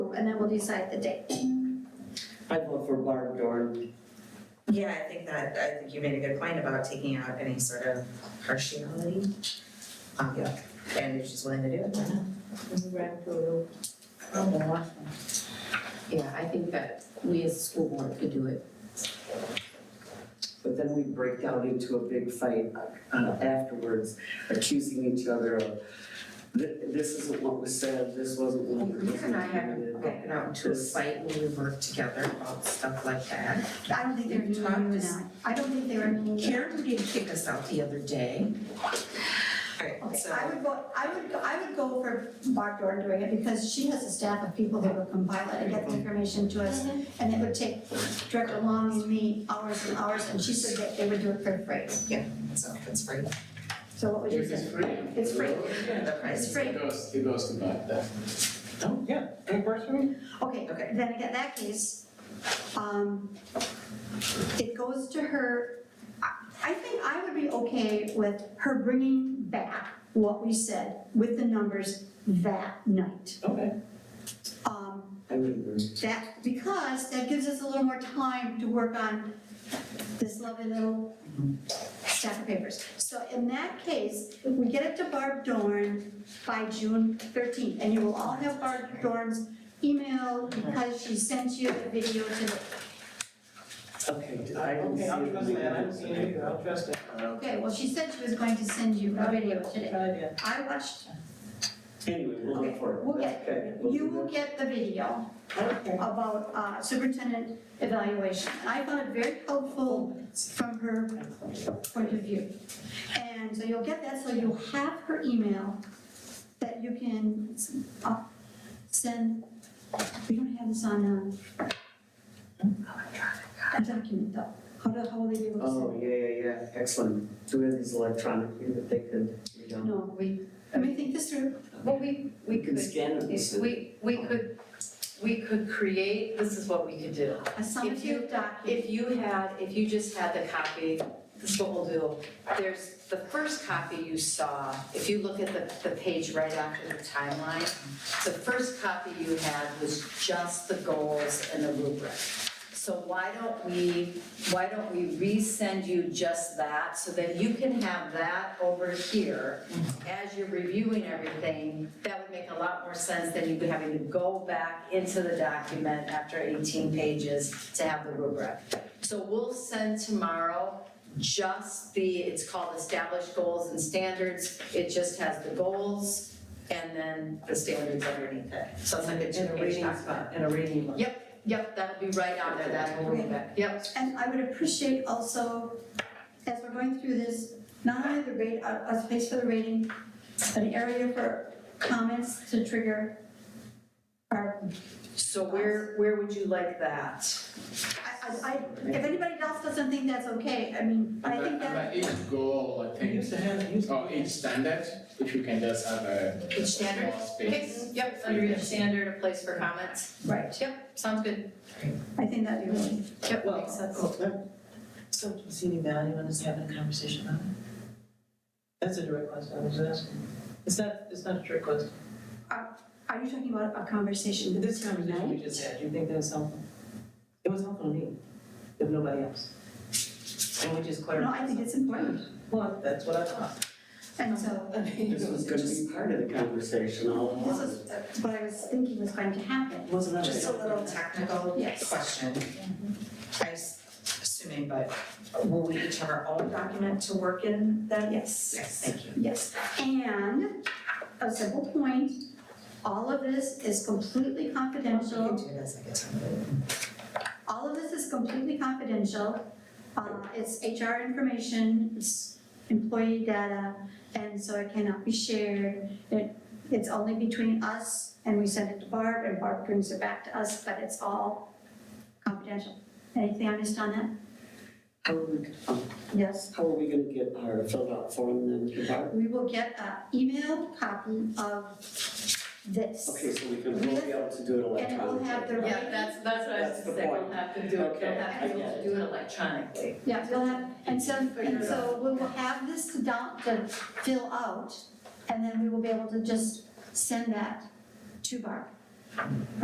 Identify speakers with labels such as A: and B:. A: and then we'll decide the date.
B: I vote for Barb Dorn.
C: Yeah, I think that, I think you made a good point about taking out any sort of partiality. Um, And if she's willing to do it, why not?
D: Yeah, I think that we as a school board could do it.
B: But then we break out into a big fight uh, afterwards, accusing each other of, "Th- this isn't what was said, this wasn't what was
D: You and I haven't
B: intended."
D: gotten out into a fight when we work together about stuff like that.
A: I don't think they're
D: You've
A: meeting
D: talked to-
A: now. Mm-hmm. I don't think they're meeting.
D: Karen did kick us out the other day.
C: Alright,
A: Okay,
C: so,
A: I would go, I would, go- I would go for Barb Dorn doing it because she has a staff of people that will compile it and get the information to us. And it would take Director Long's me hours and hours, and she said that they would do it for free.
C: so if it's free,
A: So what would you
E: This
A: say?
E: is free.
A: It's free.
C: the price
A: It's
C: is
A: free.
E: It goes, it goes to that, that. Oh, yeah, any question?
A: Okay,
C: Okay.
A: then in that case, um, it goes to her, I, I think I would be okay with her bringing back what we said with the numbers that night.
E: Okay.
A: Um,
B: I would agree.
A: That, because that gives us a little more time to work on this lovely little stack of papers. So in that case, we get it to Barb Dorn by June thirteenth, and you will all have Barb Dorn's email because she sent you the video today.
B: Okay, I didn't see it.
E: Okay, I'll trust that, I don't see any, I'll trust it.
A: Okay, well, she said she was going to send you a video today.
E: idea.
A: I watched,
B: Anyway, we'll look for it.
A: we'll get,
B: Okay, we'll
A: you
B: do
A: will get the video.
E: Okay.
A: about uh, superintendent evaluation. And I found it very helpful from her point of view. And so you'll get that, so you'll have her email that you can uh, send, we don't have this on uh, a document though. How do, how will they be
B: that.
A: able
B: Oh, yeah, yeah, yeah, excellent. Doing these electronically that they could, you
A: to?
B: know,
A: No,
F: We,
A: let me think this through.
F: well, we, we
B: you can
F: could,
B: scan it. and send it.
F: we, we could, we could create, this is what we could do.
A: A summative document.
F: If you had, if you just had the copy, this is what we'll do. There's the first copy you saw, if you look at the, the page right after the timeline, the first copy you had was just the goals and the rubric. So why don't we, why don't we resend you just that, so that you can have that over here as you're reviewing everything, that would make a lot more sense than you having to go back into the document after 18 pages to have the rubric. So we'll send tomorrow just the, it's called established goals and standards. It just has the goals and then the standards underneath it. So it's like a
D: In a
F: two-page
D: reading,
F: document.
D: in a reading.
F: Yep, that'll be right out there, that will be back. Yep,
A: And I would appreciate also, as we're going through this, not only the rate, uh, a, a space for the rating, but an area for comments to trigger our,
F: so where, where would you like that?
A: I, I, I- if anybody else doesn't think that's okay, I mean, but I think that,
E: But each goal, I
G: We
E: think,
G: used to have, it used to
E: or
G: be.
E: each standard, if you can just have a
F: Each standard?
E: small
F: Okay,
E: space.
F: yep, under each standard, a place for comments.
A: right,
F: Yep, sounds good.
A: I think that'd be really,
F: Yep,
D: Well,
F: makes sense.
D: So do you see any value in us having a conversation about it? That's a direct question I was asking. It's not, it's not a trick question.
A: are you talking about a conversation?
D: This conversation we just had, do you think that was helpful? It was helpful to me, if nobody else. And we just
A: No,
D: clarified.
A: I think it's important,
D: Well, that's what I thought.
A: and so,
D: I mean,
B: This was gonna be part of the conversation all along.
A: this is what I was thinking was going to happen,
D: It wasn't.
C: just a little technical
A: Yes.
C: question.
F: Mm-hmm.
C: I'm assuming, but will we each have our own document to work in then?
A: yes.
C: Yes, thank you.
A: Yes, and a simple point, all of this is completely
C: You can
A: confidential.
C: do it as I get time.
A: All of this is completely confidential. Uh, It's HR information, it's employee data, and so it cannot be shared. It- It's only between us, and we send it to Barb, and Barb brings it back to us, but it's all confidential. Anything I missed on that?
B: How are we, um,
A: Yes?
B: how are we gonna get our filled out form then to Barb?
A: We will get an emailed copy of this.
B: Okay, so we can, we'll be able to do
A: And it
B: it electronically.
A: will have the.
F: Yeah, that's, that's what I was
B: That's the
F: saying, we'll
B: point.
F: have to do, it.
B: Okay,
F: we'll have to be
B: I get
F: able
B: it.
F: to do it electronically.
A: Yeah, you'll have, and so, and so we will have this to down, to fill out, and then we will be able to just send that to Barb.